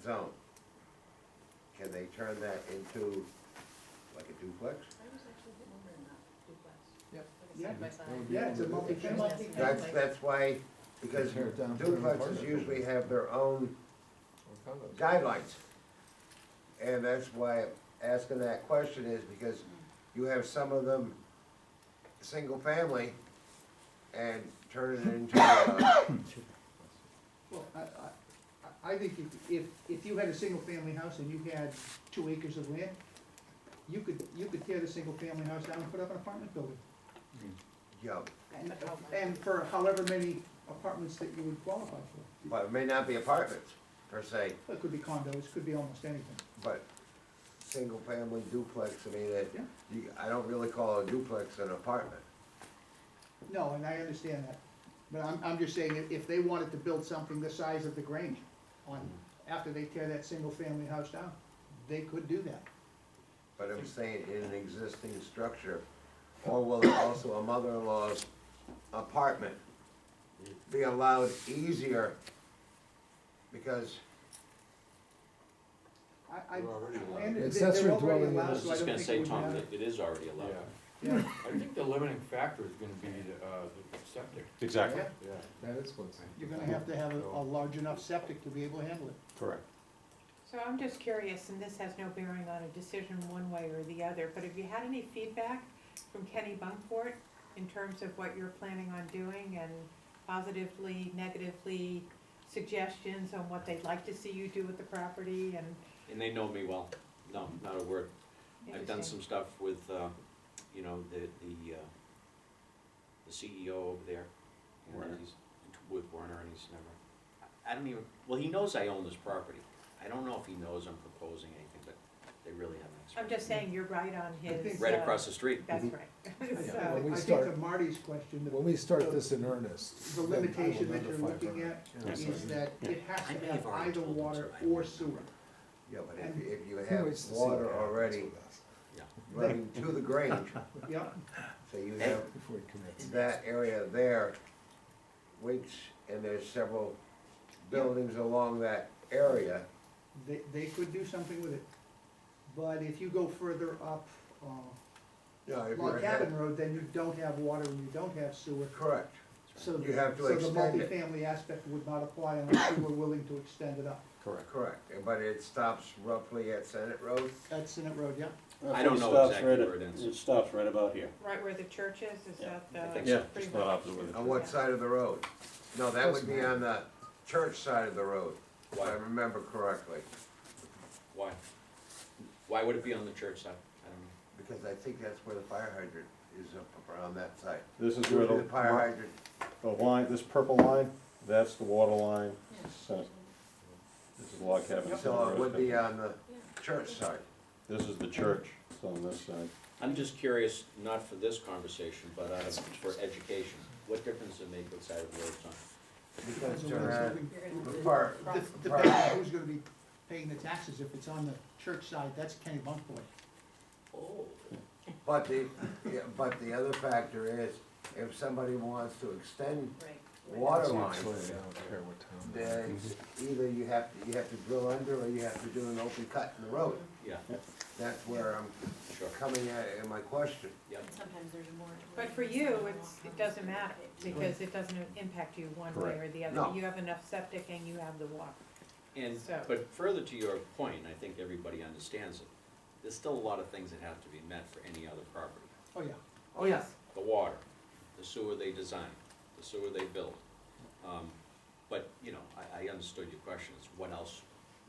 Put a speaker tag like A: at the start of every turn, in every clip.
A: zone, can they turn that into like a duplex?
B: I was actually thinking more than that, duplex.
C: Yep.
B: Like a side by side.
D: That would be
C: Yeah, it's a
D: under the-
C: multifamily.
A: That's, that's why, because
D: Tear it down, put an apartment
A: duplexes
D: building.
A: usually have their own
D: Or condos.
A: guidelines. And that's why I'm asking that question is because you have some of them, single family, and turn it into a,
C: Well, I, I- I, I think if, if, if you had a single-family house and you had two acres of land, you could, you could tear the single-family house down and put up an apartment building.
A: yo,
C: And, and for however many apartments that you would qualify for.
A: but it may not be apartments per se,
C: It could be condos, could be almost anything.
A: but single family duplex, I mean, that,
C: Yeah.
A: you, I don't really call a duplex an apartment.
C: No, and I understand that, but I'm, I'm just saying, if, if they wanted to build something the size of the Grange on, after they tear that single-family house down, they could do that.
A: But I'm saying in an existing structure, or will it also a mother-in-law's apartment be allowed easier? Because,
C: I, I.
E: They're already allowed.
C: I under- they're- they're
D: Accessory
C: already
D: dwelling
C: allowed,
D: unit.
F: I was
C: so I don't
F: just gonna
C: think it
F: say,
C: would
F: Tom,
C: matter.
F: that it is already allowed.
E: Yeah,
C: Yeah,
E: I think the limiting factor is gonna be, uh, the septic,
G: Exactly,
C: yeah.
E: yeah.
D: That is what's.
C: You're gonna have to have a, a large enough septic to be able to handle it.
G: correct.
H: So I'm just curious, and this has no bearing on a decision one way or the other, but have you had any feedback from Kenny Bunkport in terms of what you're planning on doing and positively, negatively suggestions on what they'd like to see you do with the property and?
F: And they know me well, no, not a word. I've done
H: Interesting.
F: some stuff with, uh, you know, the, the, uh, the CEO over there. and
G: Werner.
F: he's- With Werner, and he's never, I don't even, well, he knows I own this property. I don't know if he knows I'm proposing anything, but they really haven't.
H: I'm
F: expressed-
H: just saying, you're right on his.
F: Right
H: uh,
F: across the street.
H: That's
G: Mhm.
C: I
H: right.
C: think-
H: So-
D: Yeah. When we
C: uh, I think
D: start-
C: to Marty's question,
D: When
C: the,
D: we start this in earnest.
C: the
D: then I will
C: limitation that you're
D: notify
C: looking
D: her.
C: at
D: Yeah.
C: is that it has
F: I
C: to
F: may
C: have
F: have already
C: either
F: told them,
C: water
F: so I
C: or
F: don't
C: sewer.
A: yeah, but if,
C: And-
A: you- if you
D: Who
A: have
D: waits to see what
A: water
D: happens
A: already
D: with us
F: Yeah.
A: running to the Grange,
C: Yep,
A: so you have
D: Before we commit.
A: that area there, which, and there's several buildings along that area,
C: they, they could do something with it. But if you go further up, uh,
A: you know, if you're
C: Log Cabin
A: ahead,
C: Road, then you don't have water and you don't have sewer.
A: correct.
C: So,
A: You have to
C: so the
A: extend it.
C: multifamily aspect would not apply unless you were willing to extend it up.
G: Correct.
A: Correct, but it stops roughly at Senate Road,
C: That's Senate Road, yeah?
F: I don't
I: It
F: know
I: stops
F: exactly
I: right at-
F: where it ends.
I: It stops right about here.
H: Right where the church is, is
I: Yeah.
H: that the?
F: think
G: Yeah,
H: pretty
G: just not
H: much-
G: opposite with it.
A: on what side of the road? No, that would be on the church side of the road, if I remember correctly,
F: Why? Why would it be on the church side? I don't know.
A: because I think that's where the fire hydrant is up around that side.
G: This is where
A: Usually
G: the,
A: the fire
G: mar-
A: hydrant,
G: the line, this purple line, that's the water line, Senate. This is log cabin.
A: so it would be on the church side.
G: This is the church, it's on this side.
F: I'm just curious, not for this conversation, but uh, for education, what difference does it make what side of the road it's on?
A: Because uh,
C: So
A: they're
C: we're
A: at-
C: moving-
B: You're gonna
A: the
B: do
A: fire-
B: the
C: De-
B: cross-
C: Depending on who's gonna be paying the taxes, if it's on the church side, that's Kenny Bunkport.
F: Oh.
A: But the, yeah, but the other factor is, if somebody wants to extend
B: Right.
A: water
D: So
A: lines,
D: it's like, I don't care what town.
A: then either you have, to you have to drill under, or you have to do an open cut in the road.
F: Yeah,
A: That's where I'm
F: sure,
A: coming at in my question.
F: yep.
B: And sometimes there's more.
H: But for you, it's, it doesn't matter, because it doesn't impact you one way or the other.
A: No.
H: You have enough septic and you have the water.
F: And,
H: So-
F: but further to your point, I think everybody understands it, there's still a lot of things that have to be met for any other property.
C: Oh, yeah.
H: Oh, yes.
F: The water, the sewer they design, the sewer they build. Um, But, you know, I, I understood your question, is what else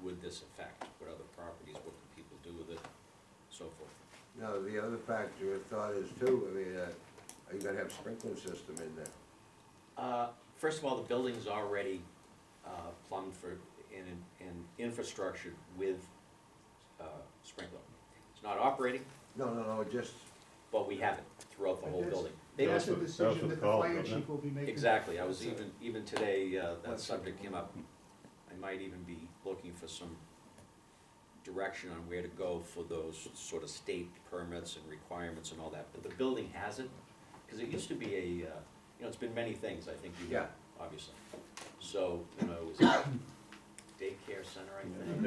F: would this affect? What other properties, what can people do with it, so forth.
A: Now, the other factor of thought is too, I mean, uh, are you gonna have sprinkler system in there?
F: Uh, First of all, the building's already uh, plumbed for, and, and infrastructured with uh, sprinkler. It's not operating,
A: No, no, no, just,
F: but we have it throughout the whole
C: But that's-
F: building. They
C: That's a
F: don't-
G: what- that was
C: decision
G: what
C: that the
G: Colin
C: fire
G: did,
C: chief will be making.
F: Exactly, I was even, even today, uh, that subject came up. I might even be looking for some direction on where to go for those sort of state permits and requirements and all that. But the building has it, because it used to be a, uh, you know, it's been many things, I think you know,
A: Yeah.
F: obviously. So, you know, it was a daycare center, I think.